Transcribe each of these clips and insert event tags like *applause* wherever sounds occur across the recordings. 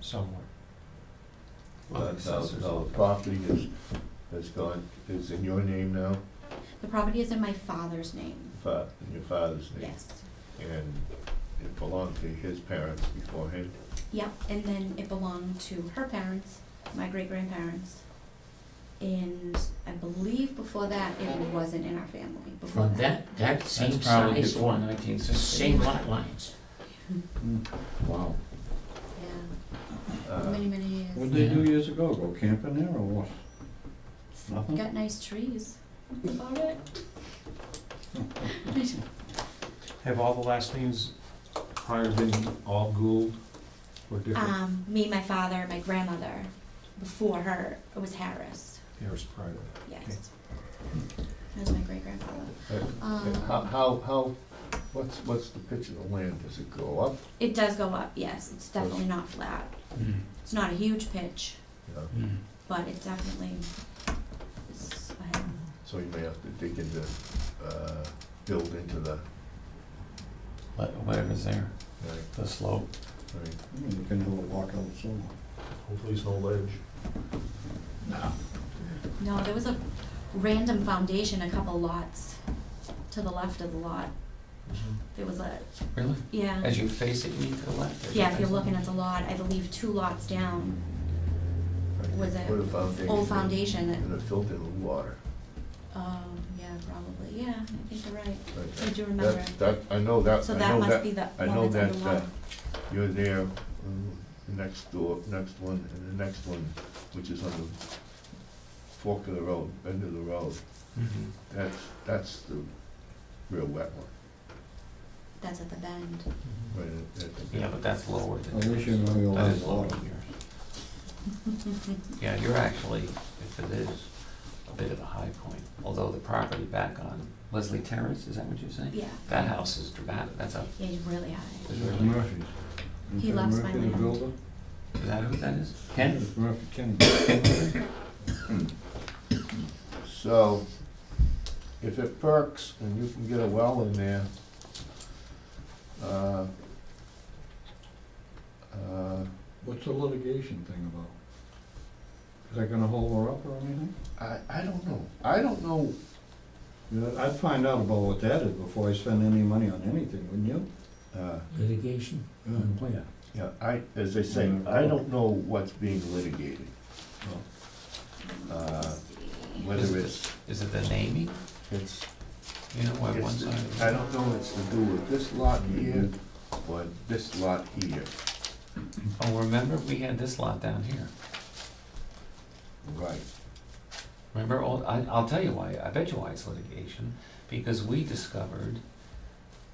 somewhere. That thousand dollar property is, has gone, is in your name now, The property is in my father's name, fa- in your father's name? yes. And it belonged to his parents beforehand? Yep, and then it belonged to her parents, my great grandparents. And I believe before that, it wasn't in our family before From that. that, that That's same probably size before one, nineteen sixty. same lot lines. Wow. Yeah, Uh, many, many years. What'd they do years ago, go camping there or what? Nothing? Got nice trees, that's about *laughs* it. *laughs* Have all the last names prior been all Gould or different? Um, me, my father, my grandmother, before her, it was Harris, Harris prior. Okay. yes. That was my great grandfather. and- and Uh, How, Um, how, how, what's, what's the pitch of the land, does it go up? it does go up, yes, it's definitely not flat. Mm, It's not a huge pitch, You know, mm. but it definitely is ahead. So you may have to dig into, uh, build into the, What- whatever's there, right, the slope. right. Hmm, You can do a walkout solo. Hopefully it's no ledge. No, there was a random foundation, a couple lots to the left of the lot. There was a, Really? yeah, As you face it, you need to the left. as you yeah, if face you're it. looking at the lot, I believe two lots down, Right, Was they it Put a foundation. old foundation that, And it filled in with water. oh, yeah, probably, yeah, I think you're right. right? I do remember. That- That, I know that, So I that know must be that, the I one know that's that, in the uh, lot. you're there, mm, the next door, next one, and the next one, which is on the fork of the road, end of the road. Mhm. That's, that's the real wet one, That's at the bend. *laughs* right at- at the- Yeah, but that's lower than. I wish you knew you That allowed is lower water. than yours. Yeah, you're actually, if it is, a bit of a high point, although the property back on Leslie Terrace, is that what you're saying? Yeah, That house is dramatic, that's a, yeah, he's really high. is Mr. really, Murphy's. He Mr. loves my Murphy, the land. builder? is that who that is? Ken? Mr. Murphy, Ken. *coughs* So, if it perks and you can get a well in there, uh, uh, What's the litigation thing about? Is that gonna hold her up or anything? I, I don't know, I don't know, Yeah, I'd find out about what that is before I spend any money on anything, wouldn't you? uh, Litigation? Mm. Where? Yeah, I, as they say, I don't know what's being litigated, Uh, Let's see. whether it's, Is it the naming? it's, You know, why one it's, side? I don't know, it's to do with this lot here or this lot here, Oh, remember, we had this lot down here. right? Remember, all, I, I'll tell you why, I bet you why it's litigation, because we discovered,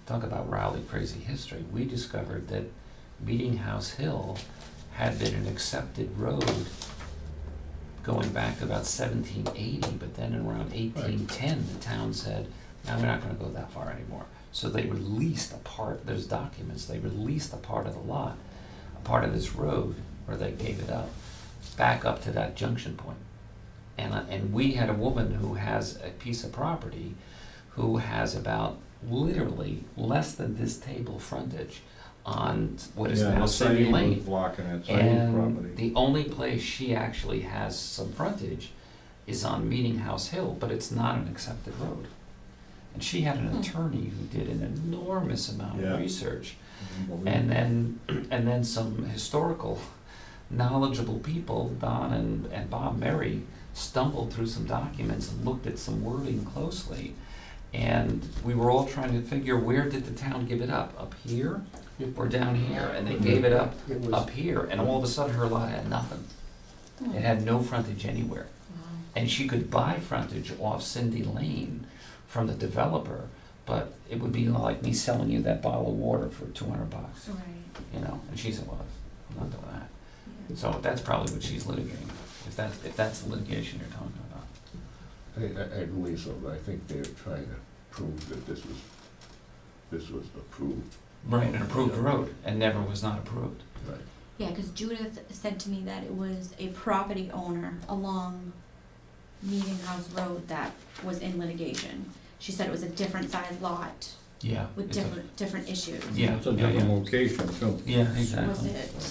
talk about rowdy crazy history, we discovered that Meeting House Hill had been an accepted road going back to about seventeen eighty, but then around eighteen ten, the town said, now we're not gonna go that far anymore. So they released a part, there's documents, they released a part of the lot, a part of this road, where they gave it up, back up to that junction point. And, I- and we had a woman who has a piece of property who has about literally less than this table frontage on what is Yeah, now the City Said was Lane. Blocking it, Said And property. the only place she actually has some frontage is on Meeting House Hill, but it's not an accepted road. And she had an Hmm. attorney who did an enormous amount Yeah. of research. And then, and then some historical knowledgeable people, Don and, and Bob Mary, stumbled through some documents and looked at some wording closely. And we were all trying to figure, where did the town give it up? Up here or down here? And they gave it up Mm-hmm. It was, up here, and all of a sudden her lot had nothing. Hmm. It had no frontage anywhere. Wow. And she could buy frontage off Cindy Lane from the developer, but it would be like me selling you that bottle of water for two hundred bucks, Right, you know? And she said, well, I'm not doing that. yeah. So that's probably what she's litigating, if that's, if that's the litigation you're talking about. I, I, I believe so, but I think they're trying to prove that this was, this was approved, Right, an approved road, and never was not approved. right? Yeah, because Judith said to me that it was a property owner along Meeting House Road that was in litigation. She said it was a different size lot Yeah. with it's a- different, different issues. Yeah, It's a yeah, different yeah. location, too. Yeah, exactly. Was it